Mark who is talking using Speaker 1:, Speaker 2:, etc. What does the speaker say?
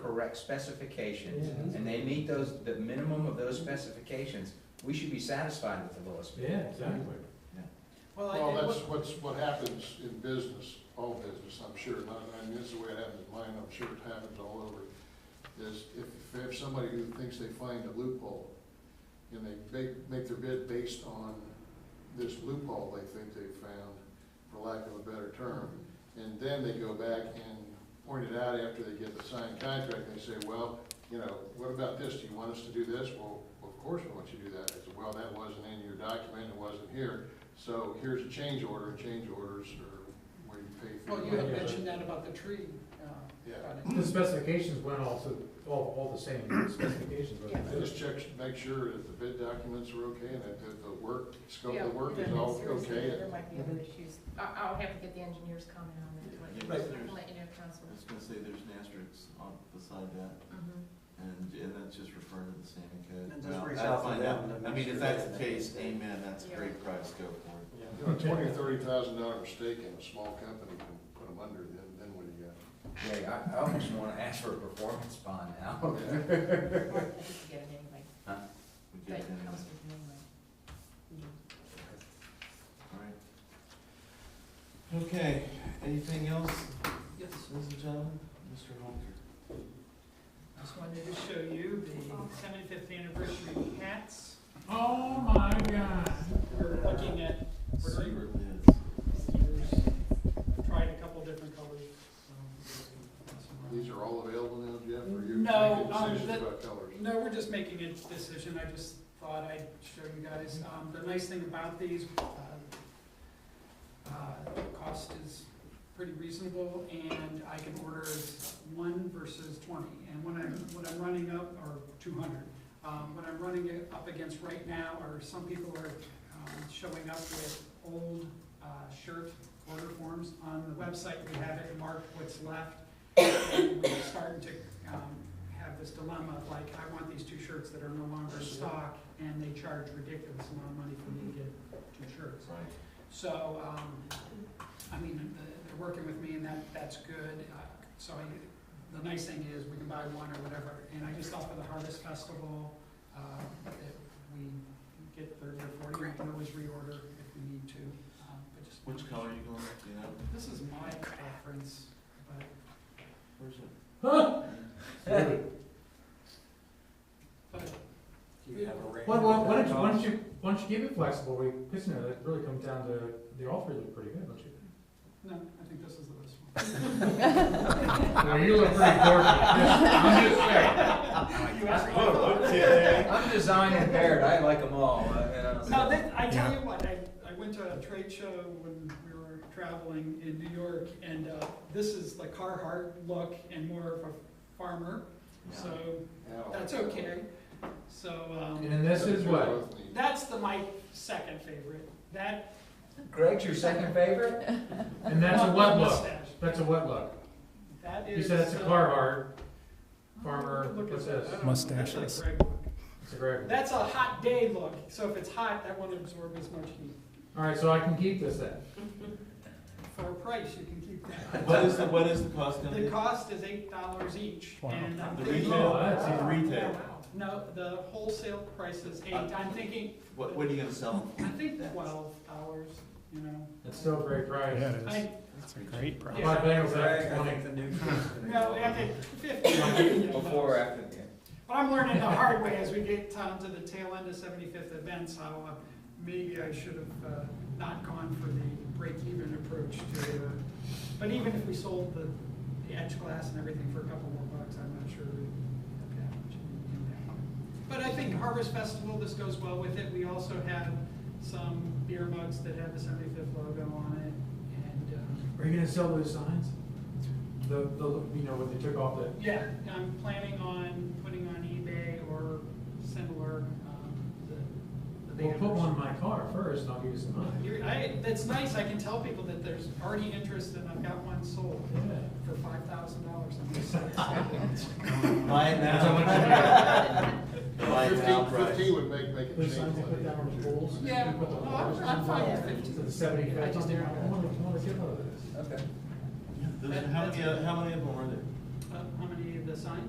Speaker 1: correct specifications,
Speaker 2: Yeah.
Speaker 1: and they meet those, the minimum of those specifications, we should be satisfied with the lowest bid.
Speaker 2: Yeah, exactly.
Speaker 3: Well, I-
Speaker 4: Well,
Speaker 3: I-
Speaker 4: that's what's, what happens in business, all business, I'm sure, not, I mean, this is the way it happens in mine, I'm sure it happens all over, is if, if somebody who thinks they find a loophole, and they make, make their bid based on this loophole they think they found, for lack of a better term, and then they go back and point it out after they get the signed contract, and they say, well, you know, what about this, do you want us to do this? Well, of course we want you to do that, I said, well, that wasn't in your document, it wasn't here, so here's a change order, change orders are where you pay for.
Speaker 3: well, you had mentioned that about the tree, uh,
Speaker 4: Yeah.
Speaker 3: product.
Speaker 2: The specifications went all to, all, all the same specifications, but.
Speaker 4: And Just check, make sure that the bid documents are okay and that the- the work, scope of the work is
Speaker 5: Yeah,
Speaker 4: all
Speaker 5: seriously, There
Speaker 4: okay.
Speaker 5: might be other issues. I, I'll have to get the engineer's comment on that,
Speaker 6: Yeah,
Speaker 5: like,
Speaker 6: Right.
Speaker 5: I'll let you know, council.
Speaker 6: I was gonna say, there's an asterisk on beside that,
Speaker 5: Mhm.
Speaker 6: and, and that's just referring to the standing code.
Speaker 7: And just
Speaker 6: Well,
Speaker 7: reach
Speaker 6: I'd
Speaker 7: out to
Speaker 6: find
Speaker 7: them to
Speaker 6: I
Speaker 7: make
Speaker 6: mean,
Speaker 7: sure
Speaker 6: if that's
Speaker 7: they-
Speaker 6: the case,
Speaker 7: they-
Speaker 6: amen, that's a
Speaker 5: Yeah.
Speaker 6: great price, go for it.
Speaker 7: Yeah.
Speaker 4: You know, twenty, thirty thousand dollar mistake in a small company can put them under, then, then what do you got?
Speaker 1: Yeah, I, I almost wanna ask for a performance bond now.
Speaker 5: Well, I think you get it anyway,
Speaker 6: We
Speaker 5: but it
Speaker 6: get it anyway.
Speaker 5: comes with it anyway.
Speaker 3: Mm-hmm.
Speaker 6: Alright. Okay, anything else? Yes. Ladies and gentlemen, Mr. Holker.
Speaker 3: Just wanted to show you the seventy-fifth anniversary hats.
Speaker 2: Oh, my God.
Speaker 3: We're looking at, we're
Speaker 6: Secret
Speaker 3: doing-
Speaker 6: lids.
Speaker 3: tried a couple different colors.
Speaker 4: These are all available now, Jeff, or you're
Speaker 3: No,
Speaker 4: making
Speaker 3: um,
Speaker 4: decisions
Speaker 3: that-
Speaker 4: about colors?
Speaker 3: No, we're just making a decision, I just thought I'd show you guys, um, the nice thing about these, uh, uh, the cost is pretty reasonable, and I can order one versus twenty, and when I'm, what I'm running up, or two hundred, um, what I'm running it up against right now are some people are, um, showing up with old, uh, shirt order forms on the website, we have it marked what's left, and we're starting to, um, have this dilemma of like, I want these two shirts that are no longer in stock, and they charge ridiculous amount of money for me to get two shirts.
Speaker 6: Right.
Speaker 3: So, um, I mean, the- they're working with me and that, that's good. Uh, So I, the nice thing is we can buy one or whatever. And I just thought for the Harvest Festival, uh, that we get thirty or forty, we can always reorder if we need to. um, but just-
Speaker 6: Which color are you going with, do you know?
Speaker 3: This is my preference, but
Speaker 6: Where's it?
Speaker 3: but
Speaker 7: Do you have a range?
Speaker 2: Well, well,
Speaker 7: of
Speaker 2: why don't you, why
Speaker 7: costs?
Speaker 2: don't you, why don't you keep it flexible, we, because, you know, that really comes down to, they all three look pretty good, don't you? think?
Speaker 3: no, I think this is the best one.
Speaker 2: Well, you look pretty gorgeous.
Speaker 1: I'm just saying,
Speaker 3: You asked my thought.
Speaker 1: I'm design impaired, I like them all, uh, and I'm-
Speaker 3: No, that, I tell you what, I, I went to a trade show when we were traveling in New York, and, uh, this is the Carhartt look and more of a farmer, so
Speaker 4: Yeah, I'll-
Speaker 3: that's okay. So, um,
Speaker 2: And this is what,
Speaker 4: Both need-
Speaker 3: that's the, my second favorite, that.
Speaker 1: Greg's your second favorite?
Speaker 2: and that's a
Speaker 3: not the
Speaker 2: wet look,
Speaker 3: mustache.
Speaker 2: that's a wet look,
Speaker 3: That
Speaker 2: you
Speaker 3: is.
Speaker 2: said it's a
Speaker 3: uh,
Speaker 2: Carhartt,
Speaker 3: look
Speaker 2: farmer,
Speaker 3: at
Speaker 2: what's
Speaker 3: that.
Speaker 2: this?
Speaker 3: I don't know.
Speaker 6: Mustaches.
Speaker 3: That's a great look.
Speaker 2: It's a great one.
Speaker 3: That's a hot day look, so if it's hot, that won't absorb as much heat.
Speaker 2: All right, so I can keep this then.
Speaker 3: For a price, you can keep that.
Speaker 6: What is the, what is the cost gonna
Speaker 3: The
Speaker 6: be?
Speaker 3: cost is eight dollars each, and I'm
Speaker 6: The
Speaker 3: thinking-
Speaker 6: retail,
Speaker 2: Oh, that's-
Speaker 6: the retail,
Speaker 3: No, the wholesale price is eight, I'm thinking,
Speaker 6: what, what are you gonna sell
Speaker 3: I
Speaker 6: them
Speaker 3: think twelve dollars, you know.
Speaker 2: It's still a great price.
Speaker 3: I,
Speaker 6: for? Great.
Speaker 2: I
Speaker 3: yeah,
Speaker 2: bought bagels
Speaker 7: Greg,
Speaker 2: at
Speaker 7: I
Speaker 2: twenty.
Speaker 7: think the new kid's gonna
Speaker 3: no,
Speaker 7: go.
Speaker 3: I think fifty.
Speaker 1: Before or after the
Speaker 3: But I'm learning the hard way as we get down to the tail end of seventy-fifth events, how uh, maybe I should have uh, not gone for the break-even approach to, uh, but even if we sold the, the edge glass and everything for a couple more bucks, I'm not sure it'd have much impact. But I think Harvest Festival, this goes well with it. We also have some beer mugs that have the seventy-fifth logo on it, and, uh,
Speaker 2: Are you gonna sell those signs? The, the, you know, when they took off the,
Speaker 3: yeah, I'm planning on putting on eBay or similar, um, the, the
Speaker 2: well,
Speaker 3: banners.
Speaker 2: put one in my car first, and I'll give you some money.
Speaker 3: You're, I, that's nice, I can tell people that there's already interest and I've got one sold
Speaker 2: Yeah.
Speaker 3: for five thousand dollars.
Speaker 6: Buy it
Speaker 2: That's how much
Speaker 6: now. Buy it now,
Speaker 4: Fifteen,
Speaker 6: price.
Speaker 4: fifteen would make, make a
Speaker 2: Those
Speaker 4: change.
Speaker 2: signs they put down on the poles. and
Speaker 3: Yeah,
Speaker 2: they put the
Speaker 3: well, I'm-
Speaker 2: bars
Speaker 3: I'm
Speaker 2: on
Speaker 3: fine
Speaker 2: the
Speaker 3: with
Speaker 2: wall.
Speaker 3: fifty.
Speaker 2: To The seventy,
Speaker 3: I
Speaker 2: I
Speaker 3: just
Speaker 2: just, I
Speaker 3: narrowed it.
Speaker 2: wanna, I wanna get one of those.
Speaker 1: end. Okay.
Speaker 6: Those- How many, how many of them are there?
Speaker 3: Uh, How many of the signs?